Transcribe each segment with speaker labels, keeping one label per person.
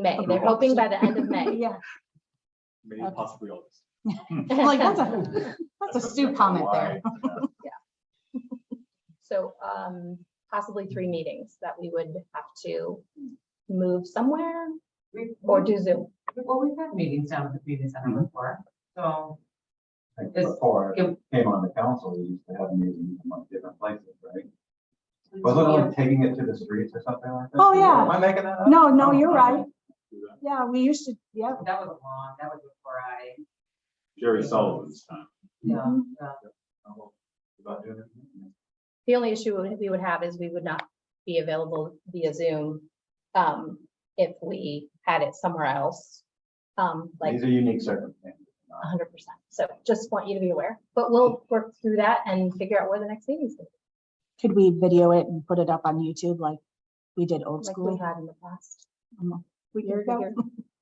Speaker 1: May. They're hoping by the end of May.
Speaker 2: Yeah,
Speaker 3: maybe
Speaker 2: Okay.
Speaker 3: possibly August.
Speaker 2: like, that's a, that's a Stu comment there.
Speaker 1: So um, possibly three meetings that we would have to move somewhere
Speaker 4: We've,
Speaker 1: or do Zoom.
Speaker 4: well, we've had meetings down at the community center
Speaker 5: Mm-hmm.
Speaker 3: Mhm.
Speaker 4: before, so.
Speaker 3: Like
Speaker 4: This-
Speaker 3: Before I
Speaker 4: it-
Speaker 3: came on the council, we used to have meetings in like different places, right? Wasn't it like taking it to the streets or something like that?
Speaker 2: Oh, yeah.
Speaker 3: Am I making that up?
Speaker 2: No, no,
Speaker 3: Oh,
Speaker 2: you're
Speaker 3: okay.
Speaker 2: right.
Speaker 6: do that.
Speaker 2: Yeah, we used to, yeah.
Speaker 4: That was long, that was before I,
Speaker 6: Jerry Sullivan's time.
Speaker 4: yeah,
Speaker 5: Mm-hmm.
Speaker 4: yeah.
Speaker 3: Oh, well, About doing it.
Speaker 1: The only issue we would- we would have is we would not be available via Zoom um, if we had it somewhere else. Um, like
Speaker 3: These are unique circumstances.
Speaker 1: hundred percent. So just want you to be aware, but we'll work through that and figure out where the next meeting is. gonna be,
Speaker 2: Could we video it and put it up on YouTube like we did old
Speaker 1: Like we
Speaker 2: school?
Speaker 1: had in the past.
Speaker 2: We
Speaker 1: Year
Speaker 2: could
Speaker 1: to
Speaker 2: go-
Speaker 1: year.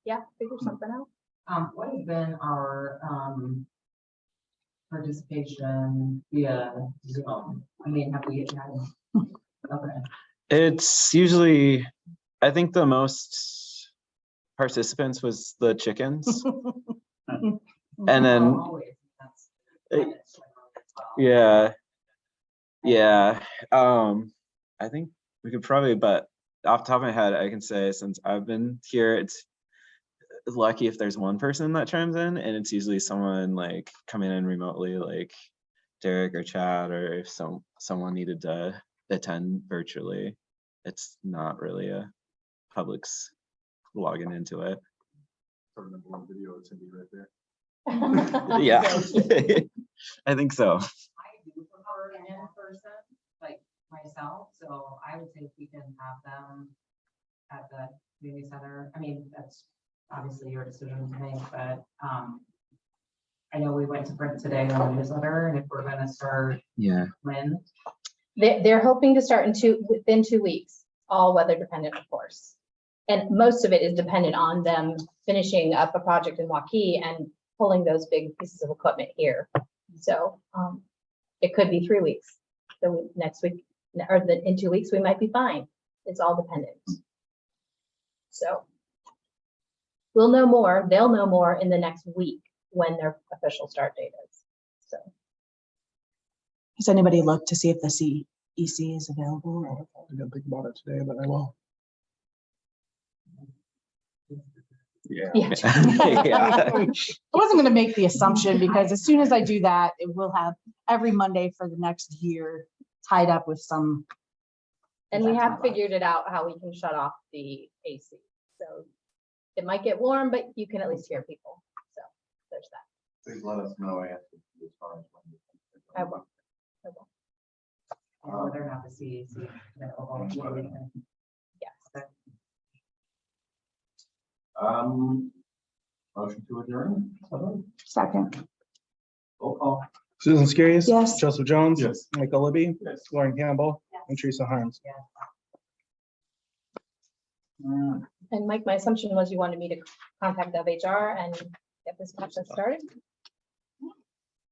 Speaker 1: Yeah, figure something out.
Speaker 4: Um, what has been our, um, participation via Zoom? I mean, have we had? Okay,
Speaker 5: It's usually, I think the most participants was the chickens. And
Speaker 4: Well,
Speaker 5: then,
Speaker 4: always, that's-
Speaker 5: Uh,
Speaker 4: that's like our- well,
Speaker 5: yeah. Yeah, um, I think we could probably, but off the top of my head, I can say since I've been here, it's lucky if there's one person that chimes in and it's usually someone like coming in remotely, like Derek or Chad, or if some, someone needed to attend virtually. It's not really a public's logging into it.
Speaker 6: Sort of the one video it's gonna be right there.
Speaker 5: Yeah.
Speaker 1: So,
Speaker 5: I think so.
Speaker 4: I do prefer an in-person, like myself, so I would think we can have them at the community center. I mean, that's obviously your decision to make, but, um, I know we went to print today on the newsletter, and if we're gonna start
Speaker 5: Yeah.
Speaker 4: when,
Speaker 1: They, they're hoping to start in two, within two weeks, all weather dependent, of course. And most of it is dependent on them finishing up a project in Waukee and pulling those big pieces of equipment here. So, um, it could be three weeks. So next week, or the, in two weeks, we might be fine. It's all dependent. So we'll know more, they'll know more in the next week when their official start date is. So
Speaker 2: Has anybody looked to see if the CEC is available? or-
Speaker 7: I didn't think about it today, but I will.
Speaker 5: Yeah.
Speaker 1: Yeah.
Speaker 5: Yeah.
Speaker 2: I wasn't gonna make the assumption because as soon as I do that, it will have every Monday for the next year tied up with some.
Speaker 1: And we
Speaker 2: That's
Speaker 1: have
Speaker 2: not bad.
Speaker 1: figured it out how we can shut off the AC, so it might get warm, but you can at least hear people, so there's that.
Speaker 3: Please let us know after. as far as when you-
Speaker 1: I will.
Speaker 4: and whether or not the CEC. is available, we can-
Speaker 1: Yes,
Speaker 3: Um, motion to adjourn, someone?
Speaker 2: Second.
Speaker 3: roll call.
Speaker 7: Susan Skirries.
Speaker 2: Yes.
Speaker 7: Joseph Jones.
Speaker 6: Yes.
Speaker 7: Michael Libby.
Speaker 3: Yes.
Speaker 7: Lauren Campbell.
Speaker 4: Yes.
Speaker 7: And Teresa Harms.
Speaker 4: Yeah.
Speaker 3: Mm,
Speaker 1: and Mike, my assumption was you wanted me to contact the HR and get this process started.